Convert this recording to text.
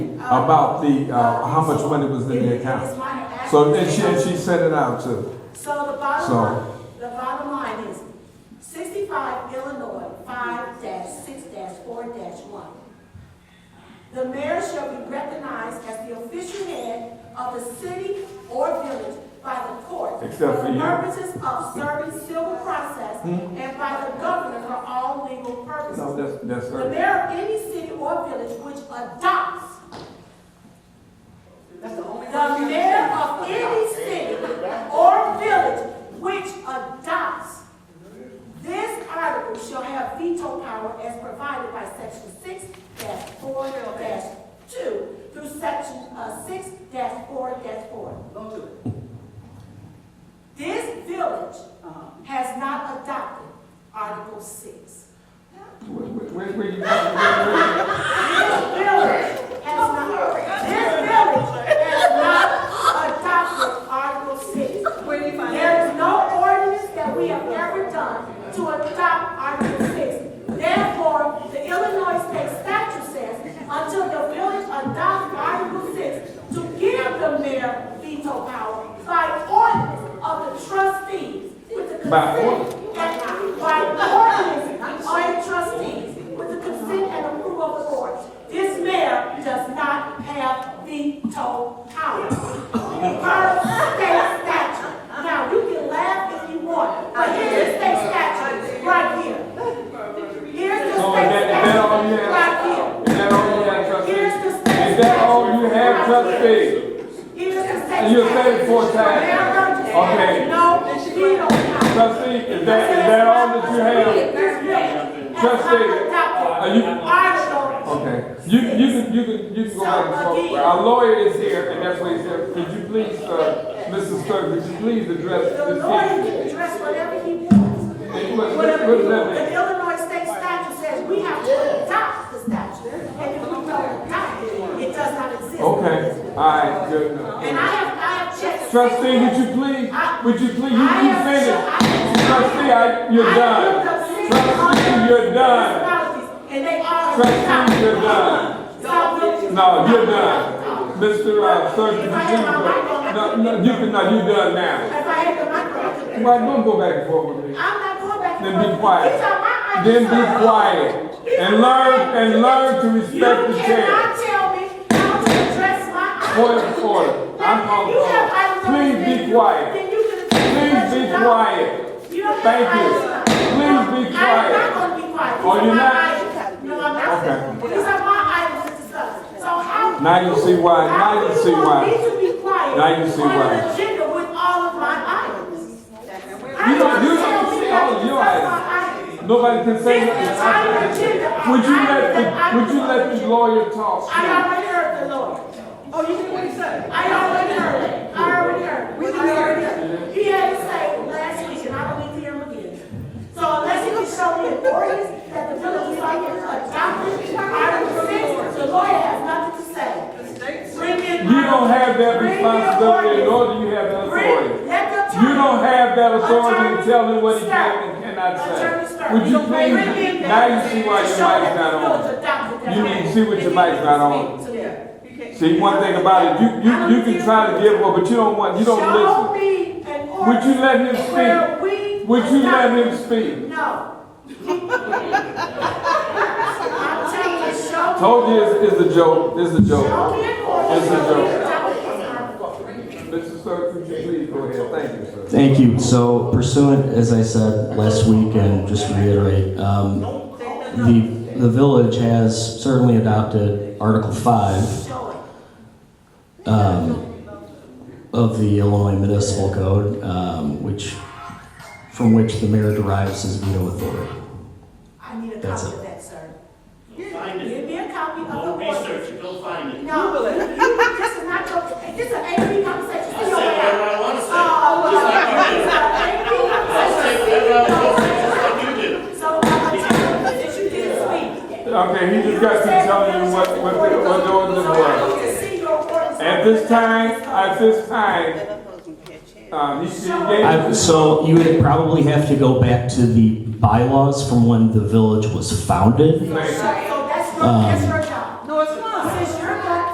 about the, uh, how much money was in the It's account. minor actions. So then she, and she sent it out too. So the So- bottom line, the bottom line is sixty-five Illinois five six four one. The mayor shall be recognized as the official head of the city or village by the court. Except for you. Hmm? the purposes of serving civil process and by the governor for all legal purposes. No, that's, that's The her. mayor of any city or village which adopts That's the only the one. mayor of any city or village which adopts this article shall have veto power as provided by section six four two through section, uh, six four four. Go to it. This village Uh-huh. has not adopted article six. Where, where- where you, where- where- where- This village has not, this village has not adopted article six. Where do you find There that? is no ordinance that we have ever done to adopt Article 6. Therefore, the Illinois state statute says, until the village adopts Article 6, to give the mayor veto power by ordinance of the trustees with the By consent and, by ordinance of the trustees with the consent and approval of the board. This mayor does not have veto power. Per state statute. Now, you can laugh if you want, but here's the state statute right here. Here's the So state is that- is that all you statute have? right Is that all you have, here. trustee? Here's the state statute. Is that all you have, right here. trustee? Here's the state statute. And you're saying four times. Okay. No, she don't have. Trustee, is that, is that all that you have? Trustee, are you- Okay, you, you can, you can, you can go back and forth. Our lawyer is here, and that's why he's here. Could you please, uh, Mrs. Clerk, could you please address The this lawyer issue? can address whatever he wants. Hey, what- what- Whatever what he does that wants. mean? The Illinois state statute says we have to adopt the statute, and if we don't adopt it, it does not exist. Okay, all right, good enough. And I have, I have checked. Trustee, would you please, would you please, you, I you have finished. checked- I have checked- Trustee, I, you're I done. have looked up six Trustee, hundred you're done. municipalities, And they all. Trustee, you're done. No, you're done. Mr. Uh, Clerk, could you please, no, no, you can, no, you're done now. If I had the microphone. I could- Why, don't go back and forth with me. I'm not going back and Then forth. be quiet. These are my ideas. Then be quiet and learn and learn to You respect the chair. cannot tell me how to address my ideas. Point of order. I'm Now, if you have on items call. on the Please be menu, quiet. Then you can. Please be quiet. You don't have Thank you. items. Please be quiet. I'm not gonna be quiet. These Oh, are you're my not? items. No, I'm not. Okay. These are my items to discuss. So how? Now you see why. how Now you do see want why. me to be quiet. Now you see On why. an agenda with all of my items. You don't, you don't see all of your items. Nobody can say nothing. Would you let, the- would you let the lawyer talk? I already heard the Lord. Oh, you didn't wait, sir. I already heard it. I already heard it. We I didn't hear already heard it. He had to say it last week, and I don't need to hear him again. So unless you can show me an ordinance that the village is like adopted, Article six, the lawyer has nothing to say. The state's Bring in. You don't have that Bring in responsibility, nor ordinance. do you have that Bring, authority. let the You don't attorney- have that authority to Attorney tell him what he can Stark. and cannot Attorney say. Stark, Would you don't bring please, in now that you see why your to mic's show that not on. the village adopted that You act. can see what If your you mic's can not on. speak to me. See, one thing about it, you, you, you can try to give one, but you don't want, you don't listen. Show me Would an you ordinance let him where speak? we. Would you let him adopt- speak? No. I'm telling you, show. Told you it's, it's a joke, it's a joke. Show me an ordinance. It's a where we joke. Mr. Sir, adopted this article. could you please go ahead? Thank you, sir. Thank you. So pursuant, as I said last week, and just to reiterate, um, the, the village has certainly adopted Article 5 Show it. um, of the Illinois Municipal Code, um, which, from which the mayor derives his veto authority. I need a That's copy it. of that, sir. Find it. Give me a copy of the Go ordinance. research it, go find it. No, you, you- this is not your, this is an AP conversation. I say whatever I wanna say. Oh, Just like you do. I say whatever I well, wanna this is an AP conversation. say, just like you do. So, I'm telling you, that you did speak. Okay, he just got to tell you what, what, what the ordinance So I was. need to see your ordinance. At this time, at this time, um, he he I- gave, So you would probably have to go back to the bylaws from when the village was founded. So Um. that's your, that's your